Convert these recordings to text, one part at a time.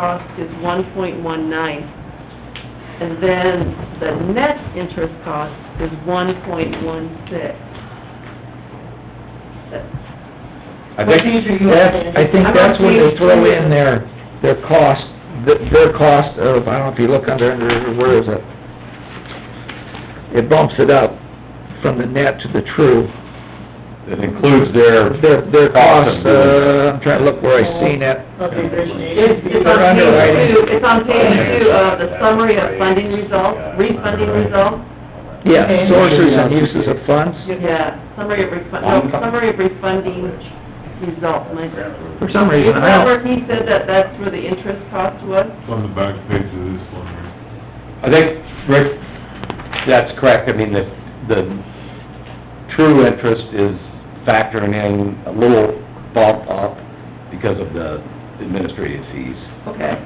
cost is one point one nine. And then the net interest cost is one point one six. I What think, these are you That's, looking at? I think I'm that's on when they page throw three. in their, their cost, th- their cost of, I don't know if you look under, under, where is it? It bumps it up from the net to the true. it includes their, Their, their cost, Cost of doing it. uh, I'm trying to look where I seen it. Of the It's, origination. it's on They're page underwriting. two, it's on page two of uh, the summary of funding results, refunding results. Yeah, Okay. sources and uses of funds. Yeah, summary of refund, no, summary of refunding results, my. For some reason, I don't, Remember he said that that's where the interest cost was? on the back page of this one, right? I think, Rick, that's correct, I mean, the, the true interest is factoring in a little bump up because of the administrative fees. Okay.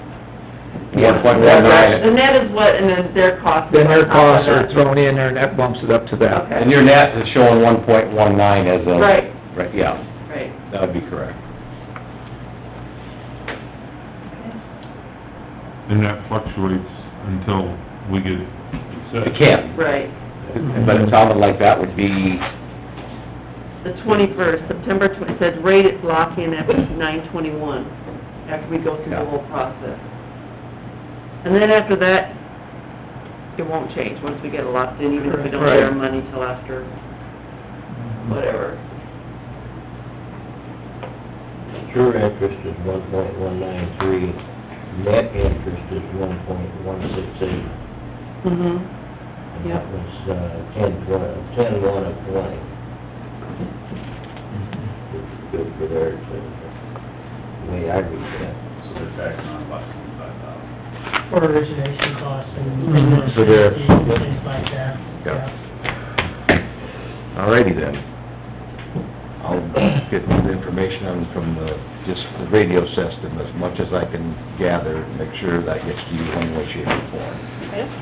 One point Yeah, one that's- nine, And that is what, and then their cost. is then their on top of costs are that. thrown in there and that bumps it up to that. Okay. and your net is showing one point one nine as a... Right. Right, yeah, Right. that would be correct. And that fluctuates until we get it set. It can, Right. but it sounded like that would be, The twenty-first, September twen, it said rate is locked in at nine twenty-one, after we go through the Yeah. whole process. And then after that, it won't change, once we get it locked in, even if we don't get our Right. money till after, whatever. True interest is one point one nine three, net interest is one point one six eight. Mm-hmm. And Yep. that was, uh, ten, tw- ten one of twenty. Which is Good for theirs, uh, the way I read that. So they're backing on about twenty-five thousand. For origination costs and. Mhm. For their- and Things like that, Yeah. yeah. alrighty then. I'll get the information on from the, just the radio system as much as I can gather, make sure that gets to you one way, shape, or form.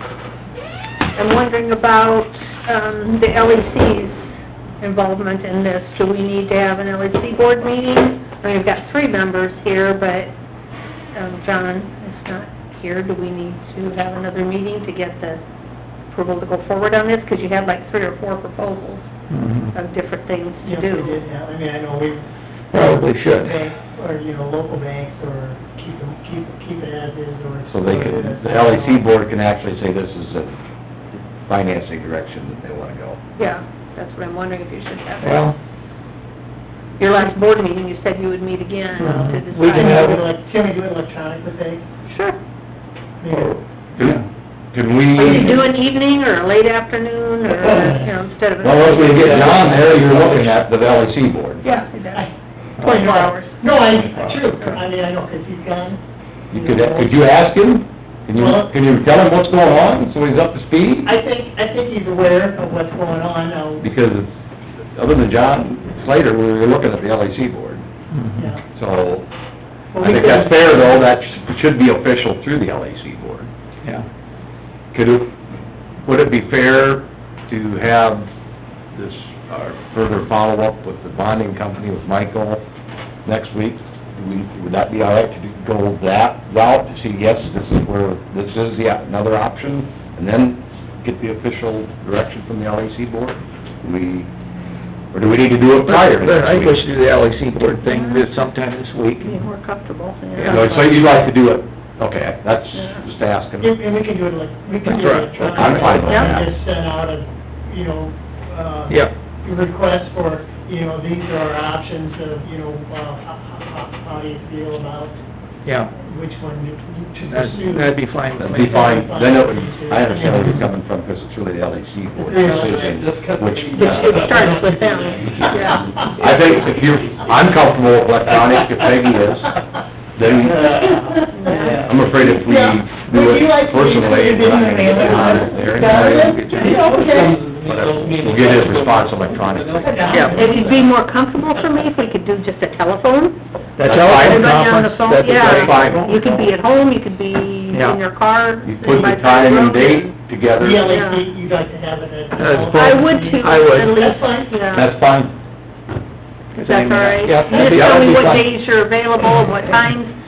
I'm wondering about, um, the LEC's involvement in this. Do we need to have an LEC board meeting? I mean, we've got three members here, but, um, John is not here. Do we need to have another meeting to get the approval to go forward on this? Because you had like three or four proposals Mhm. of different things Yeah, to if we do. did have, I mean, I know we. Probably should. Bank, or, you know, local banks, or keep them, keep, keep it as is, or. So they can, the LEC board can actually say this is a financing direction that they wanna go. Yeah, that's what I'm wondering if you should have. Well, Your last board meeting, you said you would meet again to Mhm. decide. We Can we do have- it elec- can we do it electronically, say? Sure. Maybe. Oh. Can we... Or you do an evening or a late afternoon or, you know, instead of. a- Well, once we get John there, you're looking at the LEC board. Yeah, it I- does. Twenty-four hours. No, I, true, I mean, I know, 'cause he's gone. You could, could you ask him? Can you, can you tell him what's going on, so he's up to speed? I think, I think he's aware of what's going on, now, Because other than John Slater, we were looking at the LEC board, mhm. yeah. so Well, Mm-hmm. I we think could- that's fair, though, that should be official through the LEC board. yeah. Could it, would it be fair to have this, our further follow-up with the bonding company with Michael next week? Do we- Would that be all right to do- go that route, to see, yes, this is where, this is the, another option, and then get the official direction from the LAC board? We, or do we need to do it prior to I think we next should week? do the LEC board thing this sometime this week. Be more comfortable, yeah. So so you'd like to do it, okay, that's just asking. And and we can do it like, we can do it That's right. I'm electronically. fine with that. Just send out a, you know, uh. Yep. Request for, you know, these are our options of, you know, uh, how, how, how you feel about Yeah, which one you- you to that'd pursue. that'd be fine with me. be fine, then it would, I understand where you're coming from, because it's really the LEC board decision, which, It uh, starts with them, yeah. I think if you're, I'm comfortable with electronic, if Peggy is, then I'm afraid if we do it personally, we're not gonna get the honor there anyway. Whatever. uh, We'll get his response electronically. Yeah. It'd be more comfortable for me if we could do just a telephone. That's That's fine. all, Everybody on the conference, phone, that'd be yeah. great. fine. You could be at home, you could be Yeah. in your car. You put the by time and road. date together, The LAC, you'd like to have it as. As both. I would too, I would. at That's fine. least, yeah. that's fine. Is that all right? Yep, that'd You just be- tell me that'd be what fine. days you're available, what times,